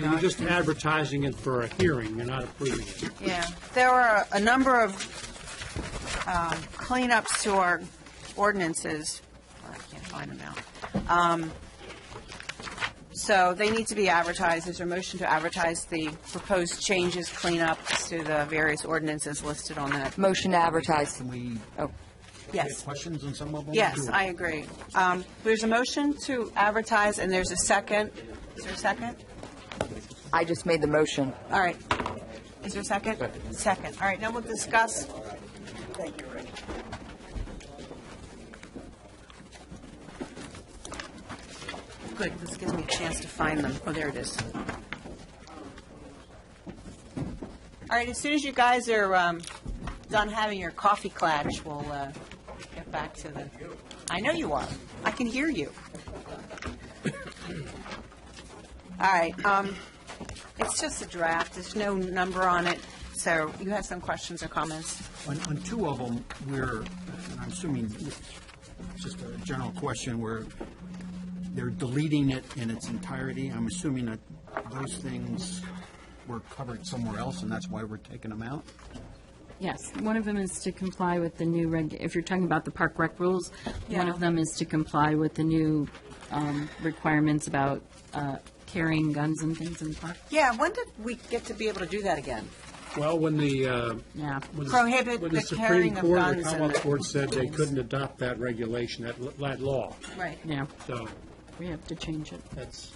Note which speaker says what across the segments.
Speaker 1: You're
Speaker 2: not.
Speaker 1: just advertising it for a hearing, you're not approving it.
Speaker 2: Yeah, there were a number of um, cleanups to our ordinances. Oh, I can't find them now. Um, So they need to be advertised. Is there a motion to advertise the proposed changes, cleanups to the various ordinances listed on that?
Speaker 3: Motion to advertise.
Speaker 4: Can we
Speaker 3: Oh,
Speaker 2: Yes.
Speaker 4: get questions on some of them?
Speaker 2: Yes, I agree. Um, There's a motion to advertise, and there's a second. Is there a second?
Speaker 3: I just made the motion.
Speaker 2: All right. Is there a second? Second. All right, now we'll discuss. Thank you, Rick. Good, this gives me a chance to find them. Oh, there it is. All right, as soon as you guys are um, done having your coffee clatch, we'll uh, get back to the, I know you are. I can hear you. All right, um, it's just a draft, there's no number on it, so you have some questions or comments?
Speaker 4: On, on two of them, we're, and I'm assuming, it's just a general question, where they're deleting it in its entirety. I'm assuming that those things were covered somewhere else, and that's why we're taking them out?
Speaker 5: Yes, one of them is to comply with the new reg, if you're talking about the park rec rules, one
Speaker 2: Yeah.
Speaker 5: of them is to comply with the new um, requirements about uh, carrying guns and things in the park.
Speaker 2: Yeah, when did we get to be able to do that again?
Speaker 1: Well, when the, uh,
Speaker 5: Yeah.
Speaker 1: when the-
Speaker 2: Prohibit
Speaker 1: when the
Speaker 2: the
Speaker 1: Supreme
Speaker 2: carrying of
Speaker 1: Court or
Speaker 2: guns and-
Speaker 1: Commonwealth Court said they couldn't adopt that regulation, that, that law,
Speaker 2: Right.
Speaker 5: Yeah,
Speaker 1: so
Speaker 5: we have to change it.
Speaker 1: that's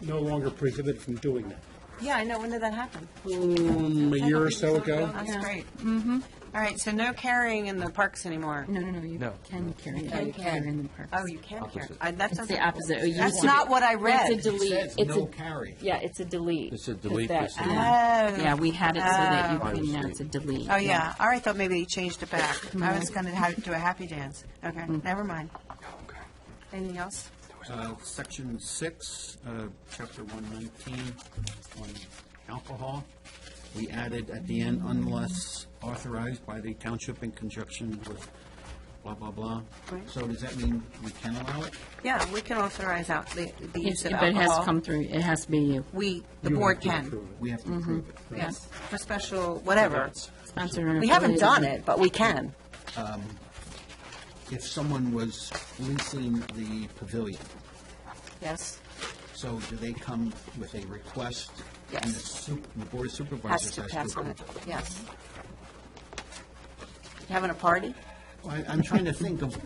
Speaker 1: no longer prohibited from doing that.
Speaker 2: Yeah, I know, when did that happen?
Speaker 1: Um, A year or so ago?
Speaker 2: That's great. Mm-hmm. All right, so no carrying in the parks anymore?
Speaker 5: No, no, no, you can carry,
Speaker 2: Oh,
Speaker 5: you
Speaker 2: you
Speaker 5: can carry
Speaker 2: can.
Speaker 5: in the park.
Speaker 2: Oh, you can carry, I- that
Speaker 5: It's
Speaker 2: sounds.
Speaker 5: the opposite. Oh, you
Speaker 2: That's
Speaker 5: want-
Speaker 2: not what I read.
Speaker 5: It's a delete.
Speaker 4: Says
Speaker 5: It's
Speaker 4: no
Speaker 5: a-
Speaker 4: carry.
Speaker 5: Yeah, it's a delete.
Speaker 6: It's a delete,
Speaker 5: That-
Speaker 6: it's a delete.
Speaker 2: Oh.
Speaker 5: Yeah, we had it so that you
Speaker 6: Oh.
Speaker 5: couldn't, now it's a delete.
Speaker 2: Oh, yeah, all right, I thought maybe he changed it back. I was going to do a happy dance. Okay, never mind. Anything else?
Speaker 4: Uh, Section six, uh, chapter one nineteen, on alcohol. We added at the end, unless authorized by the township in conjunction with blah, blah, blah.
Speaker 2: Right.
Speaker 4: So does that mean we can allow it?
Speaker 2: Yeah, we can authorize out the the use
Speaker 5: It's-
Speaker 2: of
Speaker 5: But it has to
Speaker 2: alcohol.
Speaker 5: come through, it has to be you.
Speaker 2: We, the
Speaker 1: You
Speaker 2: board
Speaker 1: have to
Speaker 2: can,
Speaker 1: approve it.
Speaker 4: We have
Speaker 2: Mm-hmm.
Speaker 4: to approve it.
Speaker 2: yes, for special, whatever.
Speaker 5: Sponsor and
Speaker 2: We haven't
Speaker 5: affiliated.
Speaker 2: done it, but we can.
Speaker 4: If someone was leasing the pavilion,
Speaker 2: Yes.
Speaker 4: so do they come with a request?
Speaker 2: Yes.
Speaker 4: And the su- the board of
Speaker 2: Has
Speaker 4: supervisors
Speaker 2: to
Speaker 4: has
Speaker 2: pass
Speaker 4: to
Speaker 2: on it,
Speaker 4: approve it?
Speaker 2: yes. You Having a party?
Speaker 4: I, I'm trying to think of,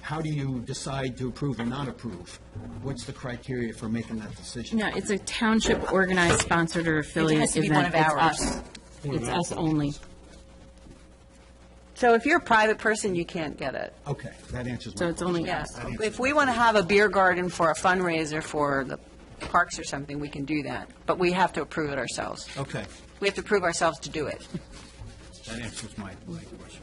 Speaker 4: how do you decide to approve or not approve? What's the criteria for making that decision?
Speaker 5: No, it's a township organized, sponsored, or affiliate event.
Speaker 2: to be one of
Speaker 5: It's
Speaker 2: ours.
Speaker 5: us.
Speaker 6: Mm-hmm.
Speaker 5: It's us only.
Speaker 2: So if you're a private person, you can't get it.
Speaker 4: Okay, that answers my
Speaker 5: So it's
Speaker 4: question.
Speaker 5: only us.
Speaker 2: If we want to have a beer garden for a fundraiser for the parks or something, we can do that, but we have to approve it ourselves.
Speaker 4: Okay,
Speaker 2: We have to prove ourselves to do it.
Speaker 4: that answers my, my question.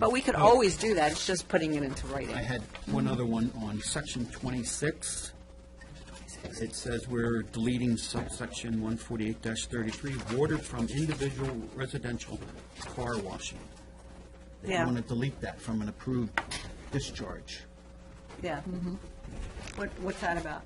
Speaker 2: But we could always do that, it's just putting it into
Speaker 4: I
Speaker 2: writing.
Speaker 4: had one other one on section twenty-six. It says we're deleting subsection one forty-eight thirty-three, water from individual residential car washing. They
Speaker 2: Yeah.
Speaker 4: want to delete that from an approved discharge.
Speaker 2: Yeah. What, what's that about?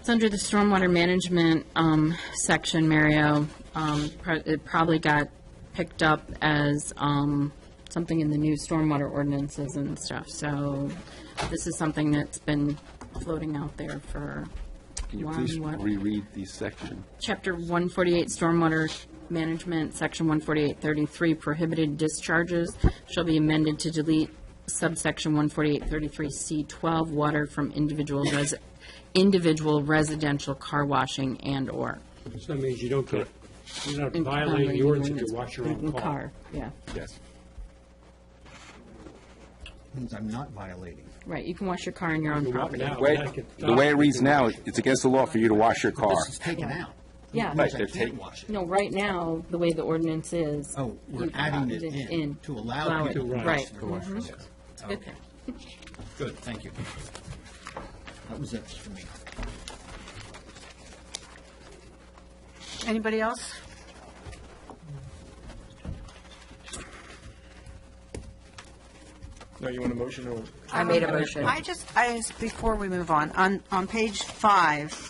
Speaker 5: It's under the stormwater management um, section, Mario. Um, pro- It probably got picked up as um, something in the new stormwater ordinances and stuff. So this is something that's been floating out there for
Speaker 6: Can you
Speaker 5: one,
Speaker 6: please
Speaker 5: what-
Speaker 6: reread the section?
Speaker 5: Chapter 148, Stormwater Management, Section 14833, prohibited discharges shall be amended to delete subsection 14833C12, water from individual res, individual residential car washing and/or.
Speaker 1: So that means you don't get, you're not violating the ordinance if you wash your own car.
Speaker 5: Yeah,
Speaker 6: Yes.
Speaker 4: Means I'm not violating.
Speaker 5: right, you can wash your car on your own
Speaker 1: You walk
Speaker 5: property.
Speaker 1: now,
Speaker 6: Way,
Speaker 1: that gets
Speaker 6: the way it
Speaker 1: stopped.
Speaker 6: reads now, it's against the law for you to wash your car.
Speaker 4: This is taken out.
Speaker 5: Yeah.
Speaker 4: Means
Speaker 6: Right,
Speaker 4: I
Speaker 6: they're
Speaker 4: can't
Speaker 6: taking-
Speaker 4: wash it.
Speaker 5: No, right now, the way the ordinance is.
Speaker 4: Oh, we're
Speaker 5: you can
Speaker 4: adding
Speaker 5: add
Speaker 4: it in to allow
Speaker 5: it,
Speaker 4: people to
Speaker 5: Right.
Speaker 4: wash their
Speaker 5: Mhm.
Speaker 4: cars.
Speaker 5: It's a good thing.
Speaker 4: Good, thank you. That was it for me.
Speaker 2: Anybody else?
Speaker 7: Now, you want a motion or?
Speaker 4: Um,
Speaker 3: I made a motion.
Speaker 2: I just, I, just- before we move on, on, on page five,